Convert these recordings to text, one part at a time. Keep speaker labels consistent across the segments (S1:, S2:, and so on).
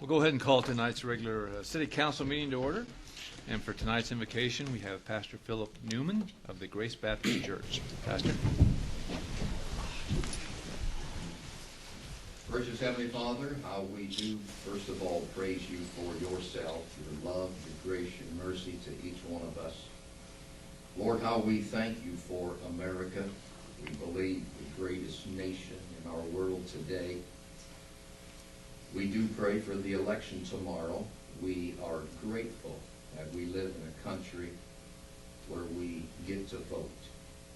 S1: We'll go ahead and call tonight's regular uh, city council meeting to order. And for tonight's invocation, we have Pastor Philip Newman of the Grace Baptist Church. Pastor?
S2: Gracious Heavenly Father, how we do first of all praise you for yourself, your love, your grace, your mercy to each one of us. Lord, how we thank you for America. We believe the greatest nation in our world today. We do pray for the election tomorrow. We are grateful that we live in a country where we get to vote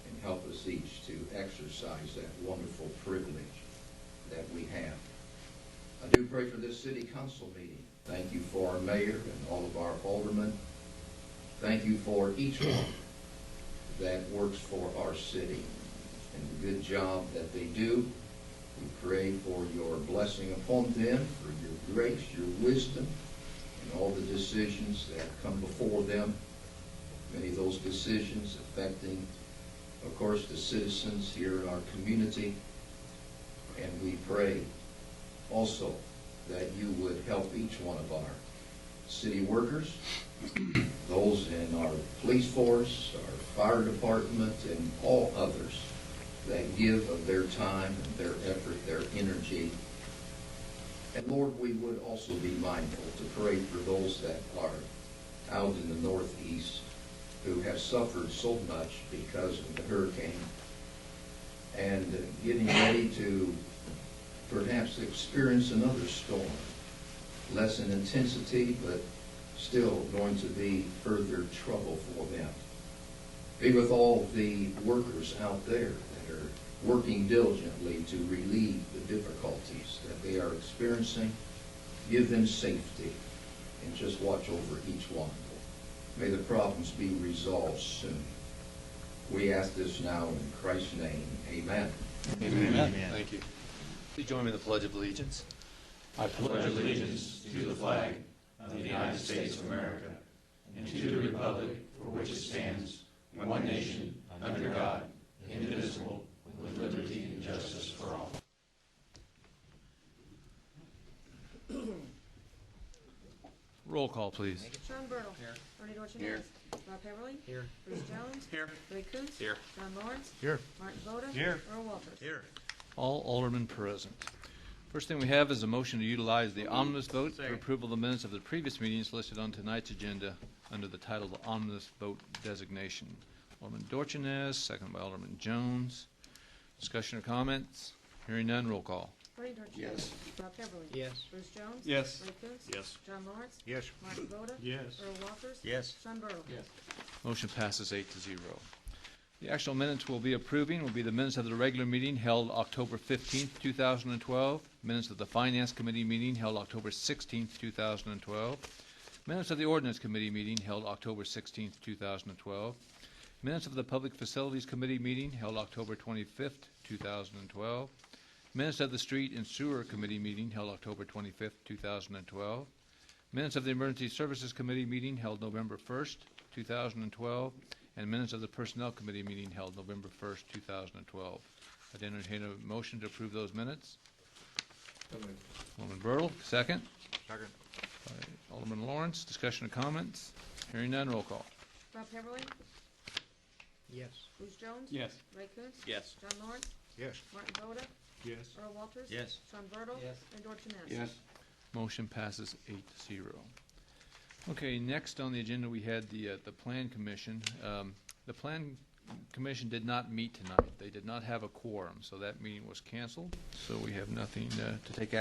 S2: and help us each to exercise that wonderful privilege that we have. I do pray for this city council meeting. Thank you for our mayor and all of our aldermen. Thank you for each one that works for our city and the good job that they do. We pray for your blessing upon them, for your grace, your wisdom, and all the decisions that come before them. Many of those decisions affecting, of course, the citizens here in our community. And we pray also that you would help each one of our city workers, those in our police force, our fire department, and all others that give of their time and their effort, their energy. And Lord, we would also be mindful to pray for those that are out in the northeast who have suffered so much because of the hurricane and getting ready to perhaps experience another storm, less in intensity, but still going to be further trouble for them. Be with all the workers out there that are working diligently to relieve the difficulties that they are experiencing. Give them safety and just watch over each one. May the problems be resolved soon. We ask this now in Christ's name. Amen.
S3: Amen.
S1: Thank you.
S3: Please join me in the Pledge of Allegiance.
S4: I pledge allegiance to the flag of the United States of America and to the republic for which it stands, one nation, under God, indivisible, with liberty and justice for all.
S1: Roll call, please.
S5: Sean Burdell. Here. Bernie Dorchenez. Rob Heatherly. Here. Bruce Jones. Here. Ray Coontz. Here. John Lawrence.
S1: Here.
S5: Martin Voda. Here. Earl Walters. Here.
S1: All aldermen present. First thing we have is a motion to utilize the omnibus vote for approval of the minutes of the previous meetings listed on tonight's agenda under the title of omnibus vote designation. Alderman Dorchenez, second by Alderman Jones. Discussion or comments? Hearing none, roll call.
S5: Bernie Dorchenez. Yes. Rob Heatherly.
S6: Yes.
S5: Bruce Jones.
S4: Yes.
S5: Ray Coontz.
S4: Yes.
S5: John Lawrence.
S6: Yes.
S5: Martin Voda.
S4: Yes.
S5: Earl Walters.
S6: Yes.
S5: Sean Burdell. Yes.
S1: Motion passes eight to zero. The actual minutes we'll be approving will be the minutes of the regular meeting held October fifteenth, two thousand and twelve, minutes of the Finance Committee meeting held October sixteenth, two thousand and twelve, minutes of the Ordinance Committee meeting held October sixteenth, two thousand and twelve, minutes of the Public Facilities Committee meeting held October twenty-fifth, two thousand and twelve, minutes of the Street and Sewer Committee meeting held October twenty-fifth, two thousand and twelve, Minutes of the Emergency Services Committee meeting held November 1st, 2012, and minutes of the Personnel Committee meeting held November 1st, 2012. I'd entertain a motion to approve those minutes. Alderman Bertle, second.
S6: Second.
S1: By Alderman Lawrence, discussion or comments? Hearing none, roll call.
S5: Rob Heatherly.
S6: Yes.
S5: Bruce Jones.
S4: Yes.
S5: Ray Coontz.
S3: Yes.
S5: John Lawrence.
S6: Yes.
S5: Martin Voda.
S4: Yes.
S5: Earl Walters.
S6: Yes.
S5: Sean Burdell.
S6: Yes.
S5: Bernie Dorchenez.
S1: Motion passes eight to zero. Okay, next on the agenda, we had the, uh, the Plan Commission. Um, The Plan Commission did not meet tonight. They did not have a quorum, so that meeting was canceled. So we have nothing uh, to take